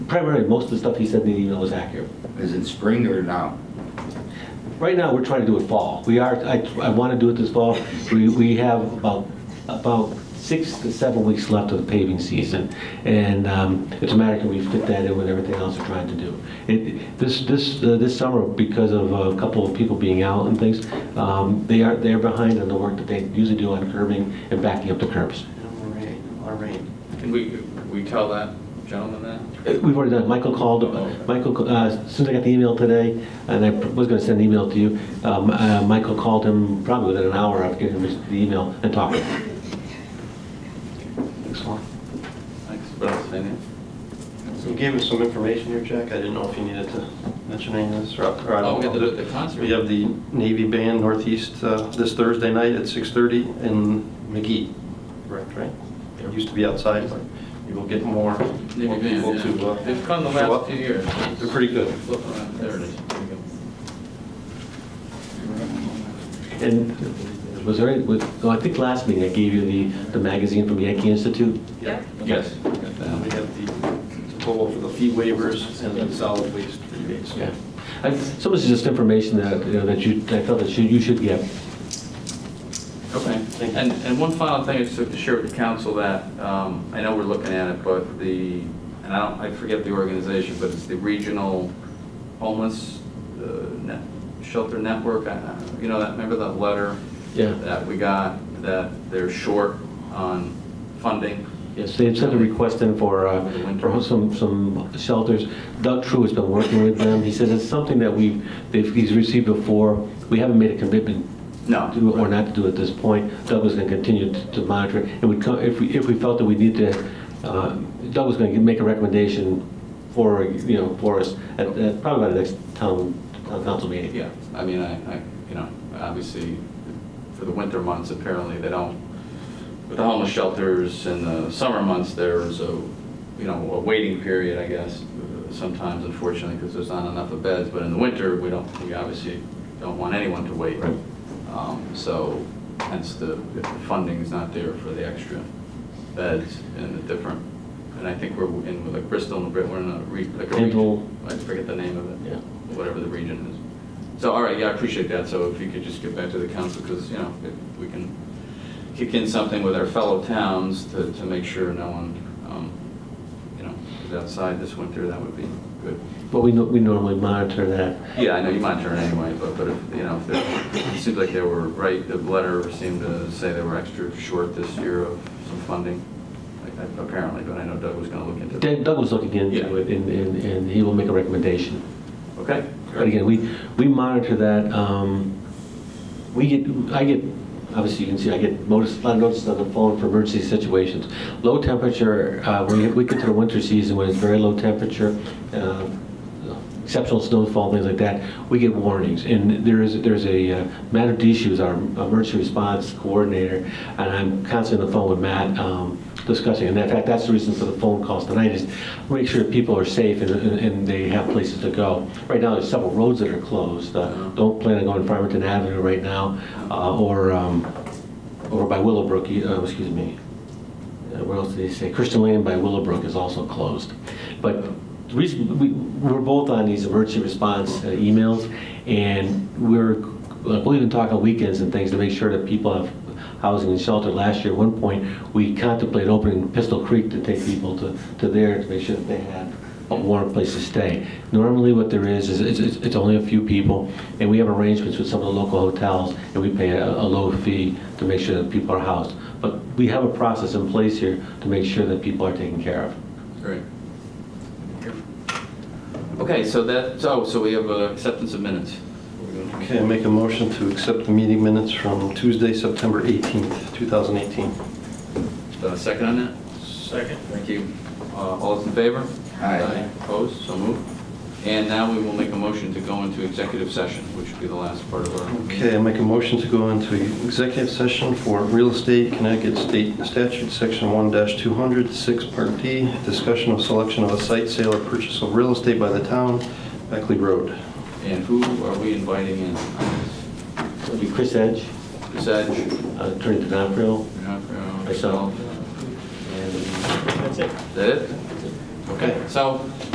primarily, most of the stuff he sent me in email was accurate. Is it spring or now? Right now, we're trying to do it fall. We are, I, I want to do it this fall. We, we have about, about six to seven weeks left of the paving season. And um, it's a matter can we fit that in with everything else we're trying to do. It, this, this, uh, this summer, because of uh, a couple of people being out and things, um, they are, they're behind on the work that they usually do on curbing and backing up the curbs. All right, all right. Can we, we tell that gentleman that? Uh, We've already done, it. Michael called, Michael, uh, as soon as I got the email today, and I was gonna send an email to you, um, uh, Michael called him probably within an hour of getting him the email and talked to him. Excellent. Thanks, what else, Daniel? You gave us some information here, Jack. I didn't know if you needed to mention any of this or. or I Oh, don't we got know. the- the concert. We have the Navy Band Northeast uh, this Thursday night at 6:30 in McGee. Correct, right? It used to be outside, but you will get more Navy more band, people yeah. to uh, They've come the show last up. few years. They're pretty good. Flip around. There it is. There we go. And was there, any- was- no, I think last meeting I gave you the, the magazine from Yankee Institute? Yeah. Yes. And We have the total for the fee waivers and the solid waste rebates. Yeah. I- Some of this is just information that, you know, that you, I felt that you, you should get. Okay, Thank you. and, and one final thing, I just to share with the council that, um, I know we're looking at it, but the, and I don't, I forget the organization, but it's the Regional Homeless uh, Net- Shelter Network, I- I- you know, that, remember that letter? Yeah. That we got, that they're short on funding? Yes, they've sent a request in for, uh, Over the winter. for some, some shelters. Doug True has been working with them. He says it's something that we've, they've, he's received before. We haven't made a commitment No. to do it or not to do it at this point. Doug was going to continue to- to monitor it. And would come, if we, if we felt that we need to, uh, Doug was going to make a recommendation for, you know, for us at, at probably by the next town, town council meeting. Yeah, I mean, I, I, you know, obviously, for the winter months, apparently, they don't, with the homeless shelters in the summer months, there's a, you know, a waiting period, I guess, sometimes unfortunately, because there's not enough of beds, but in the winter, we don't, we obviously don't want anyone to wait. Right. Um, So hence the, if the funding's not there for the extra beds and the different, and I think we're in with like Bristol and Brit, we're in a, re- like a Dental. region. I forget the name of it Yeah. whatever the region is. So, all right, yeah, I appreciate that, so if you could just get back to the council, because, you know, if we can kick in something with our fellow towns to, to make sure no one, um, you know, is outside this winter, that would be good. But we, no- we normally monitor that. Yeah, I know you monitor it anyway, but, but if, you know, if there, it seems like they were right, the letter seemed to say they were extra short this year of some funding, like, apparently, but I know Doug was gonna look into it. Dan- Doug was looking into Yeah. it and, and and he will make a recommendation. Okay? But again, we, we monitor that, um, we get, I get, obviously you can see, I get notice, a lot of notices on the phone for emergency situations. Low temperature, uh, when you- we get to the winter season, when it's very low temperature, uh, exceptional snowfall, things like that, we get warnings. And there is, there's a, uh, Matt Adish, who's our emergency response coordinator, and I'm constantly on the phone with Matt um, discussing. And in fact, that's the reason for the phone calls tonight, is make sure people are safe and- and and they have places to go. Right now, there's several roads that are closed. Uh, Don't plan on going Farmington Avenue right now, uh, or um, over by Willowbrook, uh, excuse me, uh, where else did they say, Christian Lane by Willowbrook is also closed. But the reason, we, we're both on these emergency response uh, emails, and we're, like, we'll even talk on weekends and things to make sure that people have housing and shelter. Last year, at one point, we contemplated opening Pistol Creek to take people to, to there to make sure that they had a warm place to stay. Normally, what there is, is it's- it's, it's only a few people, and we have arrangements with some of the local hotels, and we pay a, a low fee to make sure that people are housed. But we have a process in place here to make sure that people are taken care of. Great. Okay, so that, so, so we have uh, acceptance of minutes. Okay, I make a motion to accept the meeting minutes from Tuesday, September 18th, 2018. Uh, Second on that? Second. Thank you. Uh, All those in favor? Aye. Opposed? So moved. And now we will make a motion to go into executive session, which will be the last part of our meeting. Okay, I make a motion to go into executive session for real estate Connecticut State Statute, Section 1-200, 6 Part D, discussion of selection of a site sale or purchase of real estate by the town, Beckley Road. And who are we inviting in? It'll be Chris Edge, Chris Edge? uh, Attorney DiNapoli, Myself? Myself. and Is that it? Okay, so